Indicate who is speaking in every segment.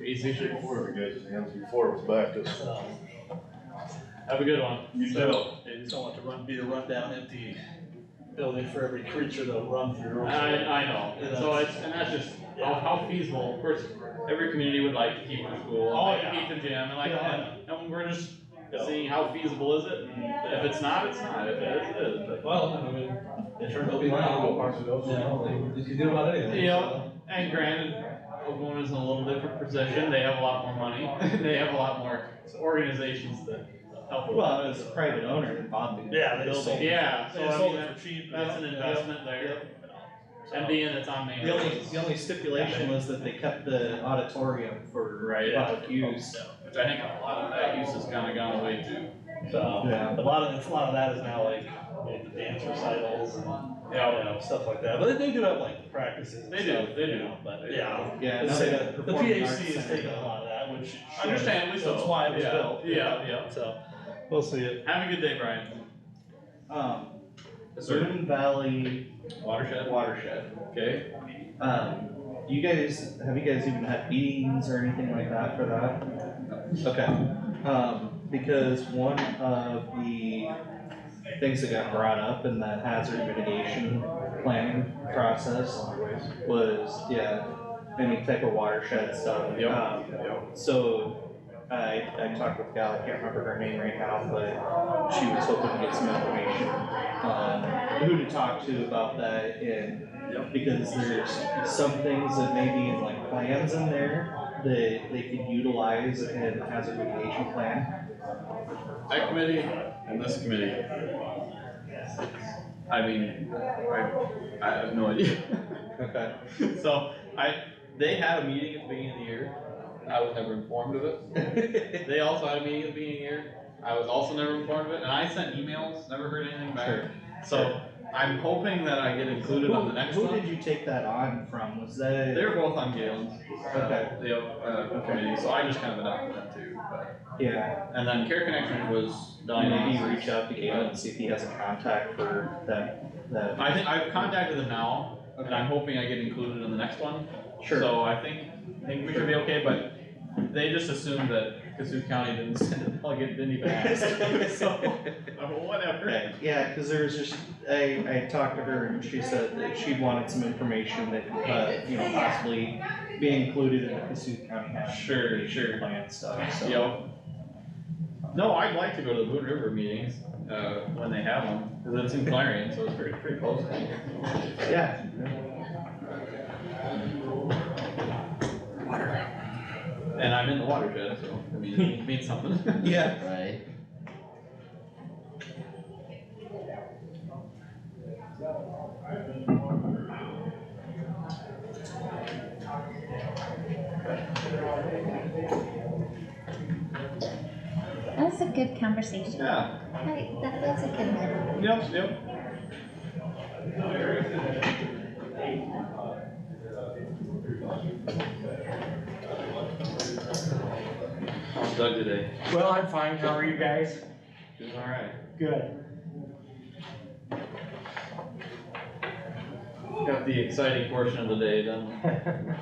Speaker 1: It's easy
Speaker 2: Before we go to the answer, before it was back to us.
Speaker 1: So, Have a good one.
Speaker 3: You too.
Speaker 1: They just don't want to run, be a rundown empty building for every creature to run through.
Speaker 3: I, I know, and so it's, and that's just, how, how feasible, of course, every community would like to keep the school,
Speaker 1: Oh,
Speaker 3: like to
Speaker 1: yeah.
Speaker 3: keep the gym, and like,
Speaker 1: Yeah.
Speaker 3: and, and we're just
Speaker 1: Yeah.
Speaker 3: seeing how feasible is it, and if it's not, it's not, if it is, it is, but.
Speaker 1: Well, I mean, it turned out to be.
Speaker 4: Yeah, You can do about anything.
Speaker 3: Yeah, and granted, Oklahoma's in a little different position, they have a lot more money, they have a lot more organizations that help. with
Speaker 4: Well,
Speaker 3: that,
Speaker 4: it's a
Speaker 3: so.
Speaker 4: private owner that bought the.
Speaker 1: Yeah, they
Speaker 4: the
Speaker 1: sold
Speaker 4: building.
Speaker 3: Yeah, so
Speaker 1: They
Speaker 3: I
Speaker 1: sold
Speaker 3: mean,
Speaker 1: it
Speaker 3: that-
Speaker 1: for cheap.
Speaker 3: that's an investment there, and
Speaker 1: So,
Speaker 3: being it's on main.
Speaker 4: The only,
Speaker 3: roads,
Speaker 4: the only stipulation was that they kept the auditorium for
Speaker 3: Right.
Speaker 4: public use.
Speaker 3: Which I think a lot of that use has kinda gone away too.
Speaker 1: So,
Speaker 4: Yeah.
Speaker 1: a lot of, it's- a lot of that is now like, you know, dance recitals and, you know, stuff like that, but they do have like practices and
Speaker 3: They do,
Speaker 1: stuff,
Speaker 3: they
Speaker 1: you
Speaker 3: do.
Speaker 1: know, But,
Speaker 3: They
Speaker 1: yeah.
Speaker 4: Yeah.
Speaker 1: I'd
Speaker 4: now
Speaker 1: say
Speaker 4: they got
Speaker 1: that The
Speaker 4: performing arts
Speaker 1: PAC is
Speaker 4: center.
Speaker 1: taking a lot of that, which.
Speaker 3: Understandably so.
Speaker 1: That's why it was
Speaker 3: Yeah,
Speaker 1: built.
Speaker 3: yeah, yeah.
Speaker 1: So, we'll see it.
Speaker 3: Have a good day, Brian.
Speaker 4: Um,
Speaker 3: Sir.
Speaker 4: Boone Valley
Speaker 3: Watershed.
Speaker 4: watershed.
Speaker 3: Okay.
Speaker 4: Um, you guys, have you guys even had meetings or anything like that for that? Okay, um, because one of the things that got brought up in the hazard mitigation planning process was, yeah, any type of watershed stuff.
Speaker 3: Yep.
Speaker 4: Um, So, I, I talked with a gal, I can't remember her name right now, but she was hoping to get some information on who to talk to about that and. Because there's some things that may be in like plans in there that they could utilize in the hazard mitigation plan.
Speaker 3: That committee and this committee. I mean, I, I have no idea.
Speaker 4: Okay.
Speaker 3: So I, they had a meeting at the beginning of the year. I was never informed of it. They also had a meeting at the beginning of the year. I was also never informed of it, and I sent emails, never heard anything back.
Speaker 4: Sure.
Speaker 3: So I'm hoping that I get included on the next
Speaker 4: Who
Speaker 3: one.
Speaker 4: did you take that on from? Was that,
Speaker 3: They're both on Galen's. uh,
Speaker 4: Okay.
Speaker 3: The, uh, committee, so I just kind of adopted them too, but,
Speaker 4: yeah,
Speaker 3: and then Care Connection was done.
Speaker 4: maybe reach out to Galen and see if he has a contact for that, that.
Speaker 3: I think, I've contacted them now, and
Speaker 4: Okay.
Speaker 3: I'm hoping I get included in the next one.
Speaker 4: Sure,
Speaker 3: So I think, I think we should be okay, but they just assumed that Cassuth County didn't send a delegate, didn't even ask, so, uh, whatever.
Speaker 4: okay, yeah, cause there was just, I, I talked to her and she said that she wanted some information that, uh, you know, possibly be included in the Cassuth County hazard
Speaker 3: Sure,
Speaker 4: mitigation
Speaker 3: sure.
Speaker 4: plan stuff, so.
Speaker 3: Yep. No, I'd like to go to the Boone River meetings, uh, when they have them, cause it's in Clarion, so it's pretty, pretty close.
Speaker 4: Yeah.
Speaker 3: And I'm in the watershed, so, I mean, it means something.
Speaker 4: Yeah.
Speaker 5: Right.
Speaker 6: That was a good conversation.
Speaker 3: Yeah.
Speaker 6: I, that was a good one.
Speaker 3: Yep, yep. How's Doug today?
Speaker 7: Well, I'm fine, how are you guys?
Speaker 3: Doing alright.
Speaker 7: Good.
Speaker 3: Got the exciting portion of the day done.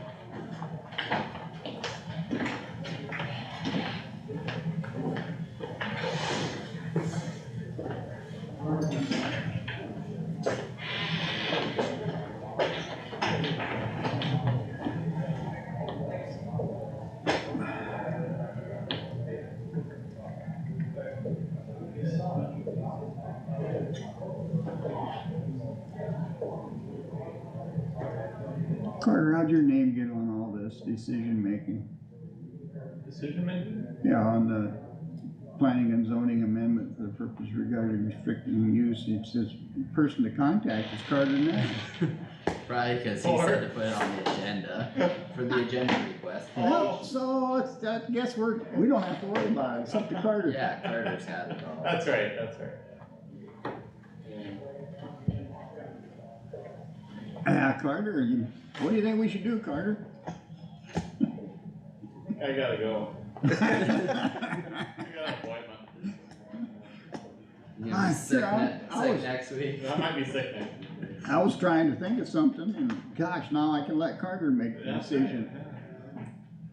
Speaker 8: Carter, how'd your name get on all this decision making?
Speaker 3: Decision making?
Speaker 8: Yeah, on the planning and zoning amendment for the purpose regarding restricting use, it says person to contact is Carter Knapp.
Speaker 5: Probably because he said to put it on the agenda for the agenda request.
Speaker 8: Well, so it's, I guess we're, we don't have to worry about it, it's up to Carter.
Speaker 5: Yeah, Carter's got it all.
Speaker 3: That's right, that's right.
Speaker 8: Ah, Carter, you, what do you think we should do, Carter?
Speaker 3: I gotta go.
Speaker 8: I
Speaker 3: I got an appointment.
Speaker 5: You gonna be sick,
Speaker 8: I-
Speaker 5: ne-
Speaker 8: I
Speaker 5: sick
Speaker 8: was-
Speaker 5: next week.
Speaker 3: I might be sick next.
Speaker 8: was trying to think of something and gosh, now I can let Carter make the
Speaker 3: Yeah.
Speaker 8: decision.